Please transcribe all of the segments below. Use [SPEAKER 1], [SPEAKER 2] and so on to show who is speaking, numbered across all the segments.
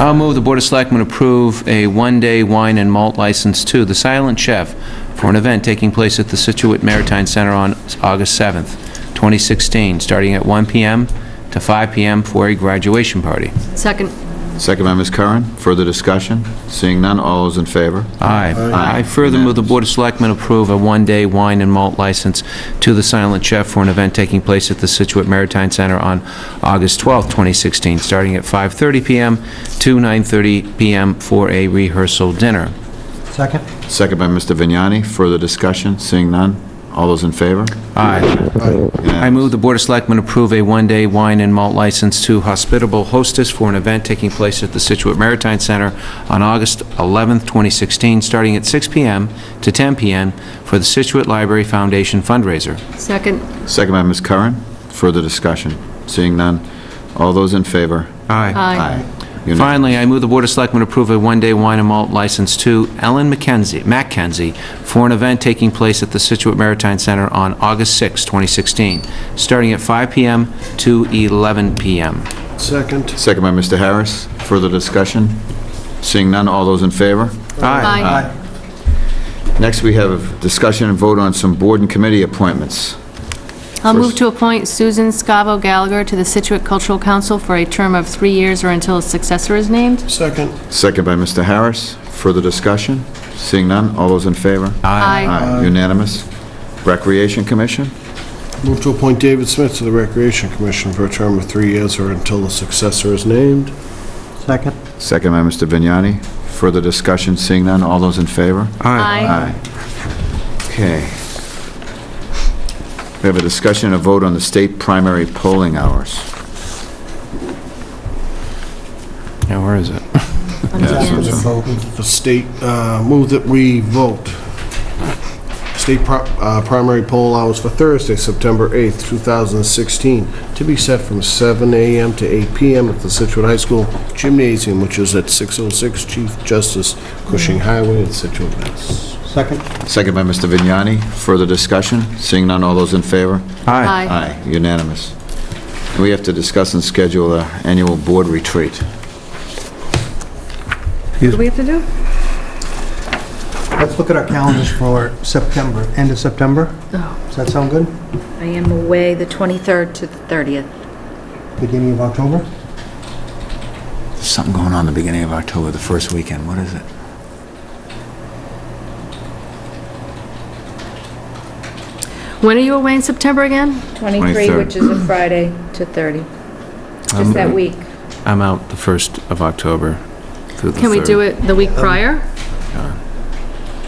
[SPEAKER 1] I'll move the Board of Selectmen approve a one-day wine and malt license to The Silent Chef for an event taking place at the Situate Maritime Center on August 7th, 2016, starting at 1 PM to 5 PM for a graduation party.
[SPEAKER 2] Second.
[SPEAKER 3] Second by Ms. Curran. Further discussion? Seeing none, all those in favor?
[SPEAKER 1] Aye. I further move the Board of Selectmen approve a one-day wine and malt license to The Silent Chef for an event taking place at the Situate Maritime Center on August 12th, 2016, starting at 5:30 PM to 9:30 PM for a rehearsal dinner.
[SPEAKER 4] Second?
[SPEAKER 3] Second by Mr. Vignani. Further discussion? Seeing none, all those in favor?
[SPEAKER 1] Aye. I move the Board of Selectmen approve a one-day wine and malt license to Hospitable Hostess for an event taking place at the Situate Maritime Center on August 11th, 2016, starting at 6 PM to 10 PM for the Situate Library Foundation fundraiser.
[SPEAKER 2] Second.
[SPEAKER 3] Second by Ms. Curran. Further discussion? Seeing none, all those in favor?
[SPEAKER 1] Aye.
[SPEAKER 2] Aye.
[SPEAKER 3] Unanimous.
[SPEAKER 1] Finally, I move the Board of Selectmen approve a one-day wine and malt license to Ellen McKenzie, McKenzie, for an event taking place at the Situate Maritime Center on August 6th, 2016, starting at 5 PM to 11 PM.
[SPEAKER 4] Second.
[SPEAKER 3] Second by Mr. Harris. Further discussion? Seeing none, all those in favor?
[SPEAKER 1] Aye.
[SPEAKER 3] Next, we have discussion and vote on some board and committee appointments.
[SPEAKER 2] I'll move to appoint Susan Scavo Gallagher to the Situate Cultural Council for a term of three years or until a successor is named.
[SPEAKER 4] Second.
[SPEAKER 3] Second by Mr. Harris. Further discussion? Seeing none, all those in favor?
[SPEAKER 2] Aye.
[SPEAKER 3] Aye. Unanimous. Recreation Commission?
[SPEAKER 4] Move to appoint David Smith to the Recreation Commission for a term of three years or until the successor is named. Second.
[SPEAKER 3] Second by Mr. Vignani. Further discussion, seeing none, all those in favor?
[SPEAKER 2] Aye.
[SPEAKER 3] Okay. We have a discussion and a vote on the state primary polling hours.
[SPEAKER 1] Now, where is it?
[SPEAKER 4] The state, uh, move that we vote. State pro- uh, primary poll hours for Thursday, September 8th, 2016, to be set from 7 a.m. to 8 p.m. at the Situate High School Gymnasium, which is at 606 Chief Justice Cushing Highway in Situate, Mass. Second.
[SPEAKER 3] Second by Mr. Vignani. Further discussion, seeing none, all those in favor?
[SPEAKER 1] Aye.
[SPEAKER 2] Aye.
[SPEAKER 3] Unanimous. And we have to discuss and schedule our annual board retreat.
[SPEAKER 5] What do we have to do?
[SPEAKER 6] Let's look at our calendars for September, end of September. Does that sound good?
[SPEAKER 5] I am away the 23rd to the 30th.
[SPEAKER 6] Beginning of October?
[SPEAKER 3] There's something going on the beginning of October, the first weekend. What is it?
[SPEAKER 2] When are you away in September again?
[SPEAKER 5] 23,
[SPEAKER 3] 23rd.
[SPEAKER 5] which is a Friday, to 30. Just that week.
[SPEAKER 1] I'm out the 1st of October through the 3rd.
[SPEAKER 2] Can we do it the week prior?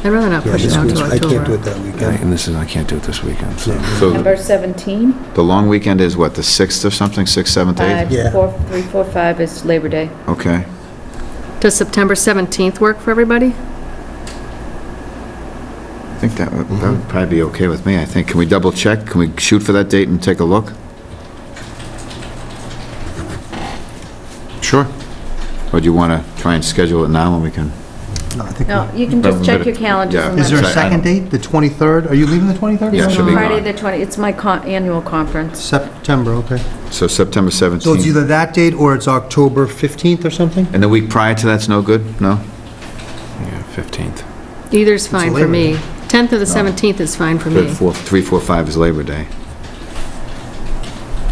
[SPEAKER 2] I'd rather not push it out to October.
[SPEAKER 6] Um, I can't do it that weekend.
[SPEAKER 1] And this is, I can't do it this weekend, so.
[SPEAKER 3] So
[SPEAKER 5] Number 17,
[SPEAKER 3] the long weekend is what, the 6th or something, 6th, 7th, 8th?
[SPEAKER 6] Yeah.
[SPEAKER 5] 5, 4, 3, 4, 5 is Labor Day.
[SPEAKER 3] Okay.
[SPEAKER 2] Does September 17th work for everybody?
[SPEAKER 3] I think that would that would probably be okay with me, I think. Can we double check? Can we shoot for that date and take a look?
[SPEAKER 1] Sure.
[SPEAKER 3] Or do you want to try and schedule it now and we can?
[SPEAKER 6] No, I think
[SPEAKER 5] No,
[SPEAKER 6] we-
[SPEAKER 5] you can just check your calendars.
[SPEAKER 3] Yeah.
[SPEAKER 5] and
[SPEAKER 6] Is there
[SPEAKER 5] let
[SPEAKER 6] a
[SPEAKER 5] us-
[SPEAKER 3] Sorry, I
[SPEAKER 6] second date, the 23rd? Are you leaving the 23rd?
[SPEAKER 3] Yeah, she'll be
[SPEAKER 5] Friday,
[SPEAKER 3] gone.
[SPEAKER 5] the 20, it's my con- annual conference.
[SPEAKER 6] September, okay.
[SPEAKER 3] So September
[SPEAKER 6] So it's
[SPEAKER 3] 17th.
[SPEAKER 6] either that date or it's October 15th or something?
[SPEAKER 3] And the week prior to that's no good? No?
[SPEAKER 1] Yeah, 15th.
[SPEAKER 2] Either's fine for
[SPEAKER 6] Labor
[SPEAKER 2] me. 10th or the 17th is fine for
[SPEAKER 3] Good,
[SPEAKER 2] me.
[SPEAKER 3] four- 3, 4, 5 is Labor Day.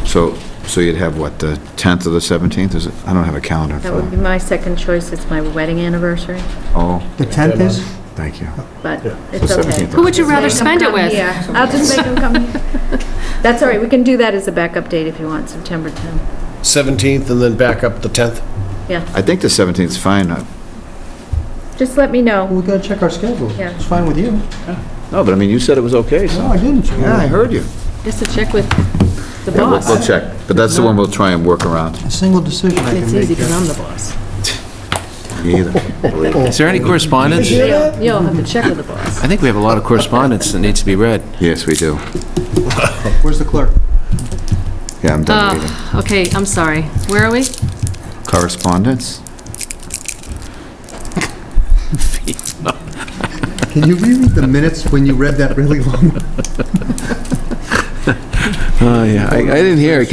[SPEAKER 3] So, so you'd have what, the 10th or the 17th? Is it, I don't have a calendar
[SPEAKER 5] That
[SPEAKER 3] for
[SPEAKER 5] would be
[SPEAKER 3] that.
[SPEAKER 5] my second choice. It's my wedding anniversary,
[SPEAKER 3] Oh,
[SPEAKER 6] The 10th is?
[SPEAKER 3] thank you.
[SPEAKER 5] but it's
[SPEAKER 3] So
[SPEAKER 5] okay.
[SPEAKER 3] 17th.
[SPEAKER 2] Who would you rather
[SPEAKER 5] Make 'em
[SPEAKER 2] spend it
[SPEAKER 5] come
[SPEAKER 2] with?
[SPEAKER 5] here. I'll just make them come here. That's all right, we can do that as a backup date if you want, September 10th.
[SPEAKER 4] 17th and then back up the 10th?
[SPEAKER 5] Yeah,
[SPEAKER 3] I think the 17th is fine. Uh,
[SPEAKER 5] just let me know.
[SPEAKER 6] Well, we gotta check our schedule.
[SPEAKER 5] Yeah.
[SPEAKER 6] It's fine with you.
[SPEAKER 3] No, but I mean, you said it was okay, so.
[SPEAKER 6] No, I didn't.
[SPEAKER 3] Yeah, I heard you.
[SPEAKER 2] Just to check with the
[SPEAKER 3] Yeah, we'll- We'll
[SPEAKER 2] boss.
[SPEAKER 3] check, but that's the one we'll try and work around.
[SPEAKER 6] A single decision I
[SPEAKER 2] It's easy
[SPEAKER 6] can make.
[SPEAKER 2] because I'm the boss.
[SPEAKER 3] Either.
[SPEAKER 1] Is there any correspondence?
[SPEAKER 2] You'll you'll have to check with the boss.
[SPEAKER 1] I think we have a lot of correspondence that needs to be read.
[SPEAKER 3] Yes, we do.
[SPEAKER 6] Where's the clerk?
[SPEAKER 3] Yeah, I'm done reading.
[SPEAKER 2] Okay, I'm sorry. Where are we?
[SPEAKER 3] Correspondence?
[SPEAKER 6] Can you read the minutes when you read that really long
[SPEAKER 1] Oh, yeah, I didn't hear it.